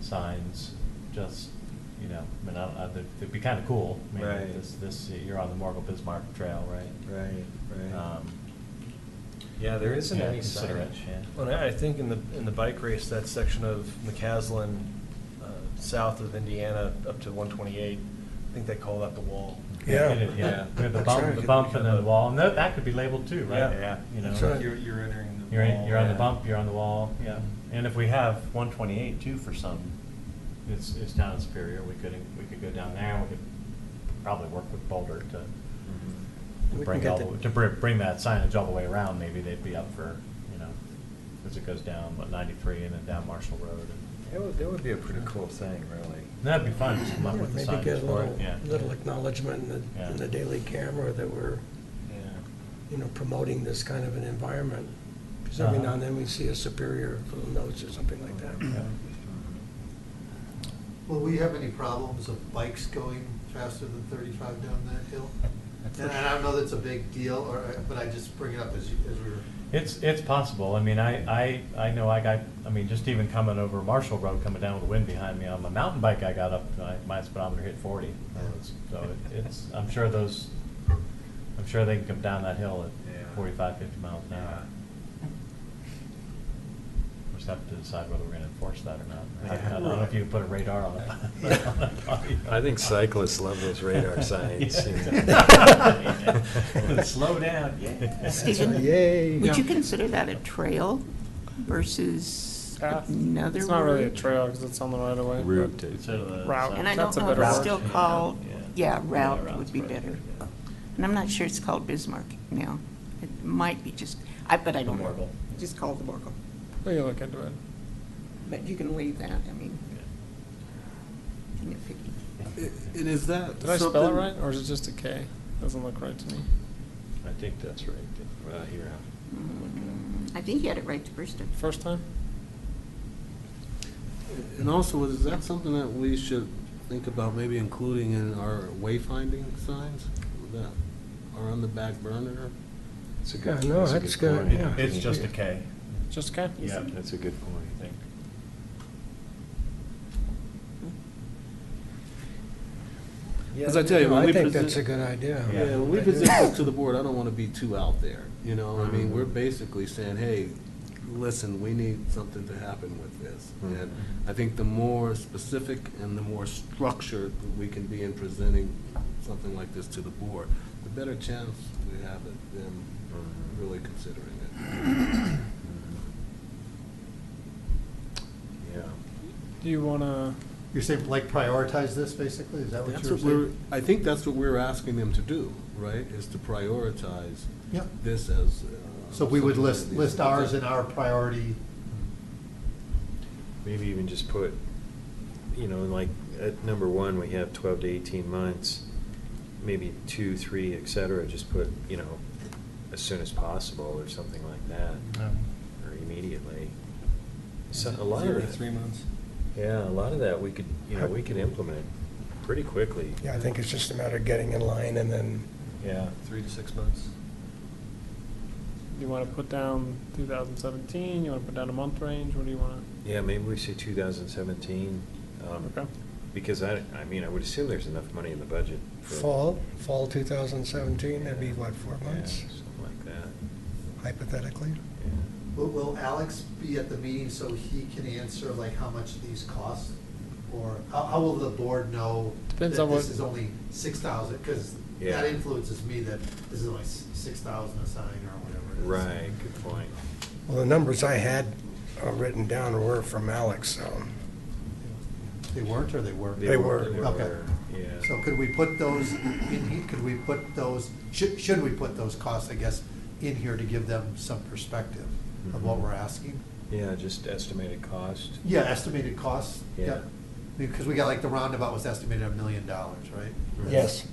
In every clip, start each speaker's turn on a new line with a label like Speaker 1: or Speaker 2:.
Speaker 1: signs, just, you know, I mean, I, don't- I, they'd- they'd be kind of cool. I mean,
Speaker 2: Right.
Speaker 1: This, this, you're on the Morgul Bismarck Trail, right?
Speaker 2: Right, right.
Speaker 1: Um,
Speaker 2: Yeah, there isn't
Speaker 1: yeah,
Speaker 2: any
Speaker 1: consider it,
Speaker 2: signage.
Speaker 1: yeah.
Speaker 3: Well, I I think in the, in the bike race, that section of McCaslin, uh, south of Indiana, up to 128, I think they call that the wall.
Speaker 4: Yeah.
Speaker 1: it- Yeah, we have the
Speaker 4: That's
Speaker 1: bump,
Speaker 4: right.
Speaker 1: the bump and then the wall, and that, that could be labeled too, right?
Speaker 3: Yeah. Yeah.
Speaker 1: You know,
Speaker 4: That's right.
Speaker 2: You're, you're entering the
Speaker 1: You're, in-
Speaker 2: wall.
Speaker 1: you're on the
Speaker 2: Yeah.
Speaker 1: bump, you're on the wall, yeah. And if we have one twenty-eight too for some, it's, it's down in Superior, we could, we could go down there, we could probably work with Boulder to
Speaker 4: We can
Speaker 1: bring
Speaker 4: get
Speaker 1: all,
Speaker 4: the-
Speaker 1: the- to br- bring that signage all the way around, maybe they'd be up for, you know, as it goes down, what, ninety-three and then down Marshall Road. and-
Speaker 2: That would, that would be a pretty cool thing, really.
Speaker 1: That'd be fun, just come up
Speaker 4: Yeah,
Speaker 1: with the
Speaker 4: Maybe get
Speaker 1: signage
Speaker 4: a
Speaker 1: for
Speaker 4: little,
Speaker 1: it, yeah.
Speaker 4: little acknowledgement in the,
Speaker 1: Yeah.
Speaker 4: in the daily camera that we're,
Speaker 2: Yeah.
Speaker 4: you know, promoting this kind of an environment. Because every
Speaker 1: Uh-huh.
Speaker 4: now and then we see a superior little notes or something like that.
Speaker 1: Yeah.
Speaker 5: Will we have any problems of bikes going faster than thirty-five down that hill? And I don't know that's a big deal, or, but I just bring it up as, you- as we were,
Speaker 1: It's, it's possible. I mean, I, I, I know I got, I mean, just even coming over Marshall Road, coming down with the wind behind me, on my mountain bike, I got up, I- my speedometer hit forty.
Speaker 5: Yeah.
Speaker 1: So it- it's, I'm sure those, I'm sure they can come down that hill
Speaker 2: Yeah.
Speaker 1: at 45, 50 miles an hour. We just have to decide whether we're gonna enforce that or not. I- I don't know if you can put a radar on it.
Speaker 2: I think cyclists love those radar signs, you
Speaker 1: Yeah.
Speaker 2: know.
Speaker 1: Slow down, yeah.
Speaker 6: Stephen,
Speaker 2: Yay.
Speaker 6: would you consider that a trail versus
Speaker 7: Uh,
Speaker 6: another
Speaker 7: It's not really a
Speaker 6: word?
Speaker 7: trail because it's on the right of way. but-
Speaker 2: Route to-
Speaker 1: Sort of a-
Speaker 7: Route.
Speaker 6: And I don't
Speaker 7: That's a
Speaker 6: know if
Speaker 7: better
Speaker 6: it's
Speaker 7: word.
Speaker 6: still called, yeah, route
Speaker 1: route's
Speaker 6: would be
Speaker 1: probably
Speaker 6: better.
Speaker 1: yeah.
Speaker 6: And I'm not sure it's called Bismarck now. It might be just, I, but I
Speaker 1: The
Speaker 6: don't know.
Speaker 1: Morgul.
Speaker 6: Just called the Morgul.
Speaker 7: We can look into it.
Speaker 6: But you can leave that, I mean,
Speaker 1: Yeah.
Speaker 6: nitpicky.
Speaker 8: And is that
Speaker 7: Did I
Speaker 8: something?
Speaker 7: spell it right, or is it just a K? Doesn't look right to me.
Speaker 2: I think that's right, well, here.
Speaker 6: Mm, I think you had it right the first time.
Speaker 7: First time?
Speaker 8: And also, is that something that we should think about maybe including in our wayfinding signs that are on the back burner?
Speaker 2: It's a
Speaker 4: Yeah,
Speaker 2: good,
Speaker 4: no,
Speaker 2: that's a
Speaker 4: that's
Speaker 2: good
Speaker 4: good,
Speaker 2: point.
Speaker 4: yeah.
Speaker 1: It's just a K.
Speaker 7: Just a K?
Speaker 2: Yeah, that's a good point, I think.
Speaker 8: As I tell you,
Speaker 4: No,
Speaker 8: when we
Speaker 4: I think
Speaker 8: present-
Speaker 4: that's a good idea.
Speaker 8: Yeah, when we present this to the board, I don't want to be too out there, you know, I mean, we're basically saying, hey, listen, we need something to happen with this.
Speaker 1: Hmm.
Speaker 8: And I think the more specific and the more structured we can be in presenting something like this to the board, the better chance we have at them really considering it.
Speaker 2: Yeah.
Speaker 7: Do you want to,
Speaker 5: you're saying like prioritize this basically, is that what
Speaker 8: That's
Speaker 5: you were
Speaker 8: what we're,
Speaker 5: saying?
Speaker 8: I think that's what we're asking them to do, right, is to prioritize
Speaker 5: Yep,
Speaker 8: this as. uh,
Speaker 5: so we would
Speaker 8: something that
Speaker 5: list,
Speaker 8: needs to
Speaker 5: list
Speaker 8: be
Speaker 5: ours
Speaker 8: done.
Speaker 5: and our priority,
Speaker 2: Maybe even just put, you know, like, at number one, we have twelve to eighteen months, maybe two, three, et cetera, just put, you know, as soon as possible, or something like that, or immediately. So, a lot of
Speaker 3: Zero to
Speaker 2: that-
Speaker 3: three months.
Speaker 2: Yeah, a lot of that, we could, you know, we could implement pretty quickly,
Speaker 4: Yeah, I think it's just a matter of getting in line and then,
Speaker 2: yeah.
Speaker 3: Three to six months.
Speaker 7: you want to put down 2017? You want to put down a month range? What do you want
Speaker 2: Yeah, maybe we say two thousand seventeen,
Speaker 7: to?
Speaker 2: um,
Speaker 7: Okay.
Speaker 2: because I, I mean, I would assume there's enough money in the budget for.
Speaker 4: fall, fall 2017, that'd be what, four
Speaker 2: Yeah,
Speaker 4: months
Speaker 2: Something like that,
Speaker 4: hypothetically?
Speaker 2: yeah.
Speaker 5: will, will Alex be at the meeting so he can answer like how much these cost? Or how, how will the board know that
Speaker 7: Depends on
Speaker 5: this
Speaker 7: what-
Speaker 5: is only six thousand, because
Speaker 2: Yeah.
Speaker 5: that influences me that this is only six thousand a sign or whatever it is.
Speaker 2: Right, good point.
Speaker 4: Well, the numbers I had uh, written down were from Alex, so.
Speaker 5: They weren't or they were?
Speaker 4: They were.
Speaker 5: Okay.
Speaker 2: Yeah.
Speaker 5: So could we put those in, he- could we put those, should, should we put those costs, I guess, in here to give them some perspective of what
Speaker 2: Mhm.
Speaker 5: we're asking?
Speaker 2: Yeah, just estimated cost.
Speaker 5: Yeah, estimated costs,
Speaker 2: Yeah.
Speaker 5: yeah. Because we got like the roundabout was estimated at a million dollars, right?
Speaker 4: Yes.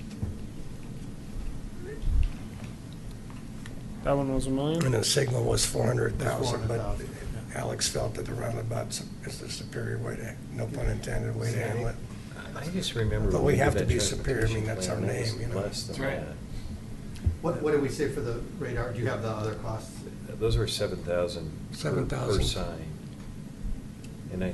Speaker 7: That one was a
Speaker 4: And
Speaker 7: million?
Speaker 4: the signal was four hundred thousand, but
Speaker 5: 400,000, yeah.
Speaker 4: Alex felt that the roundabout is the superior way to, no pun intended, way to handle it.
Speaker 2: I- I just remember.
Speaker 4: But
Speaker 2: when
Speaker 4: we have
Speaker 2: did
Speaker 4: to
Speaker 2: that
Speaker 4: be superior, I mean,
Speaker 2: transportation
Speaker 4: that's our
Speaker 2: plan, that was
Speaker 4: name, you know.
Speaker 2: Less
Speaker 3: That's
Speaker 2: than that.
Speaker 3: right.
Speaker 5: What, what did we say for the radar? Do you have the other costs?
Speaker 2: Those were seven thousand. Per
Speaker 4: 7,000.
Speaker 2: sign. And I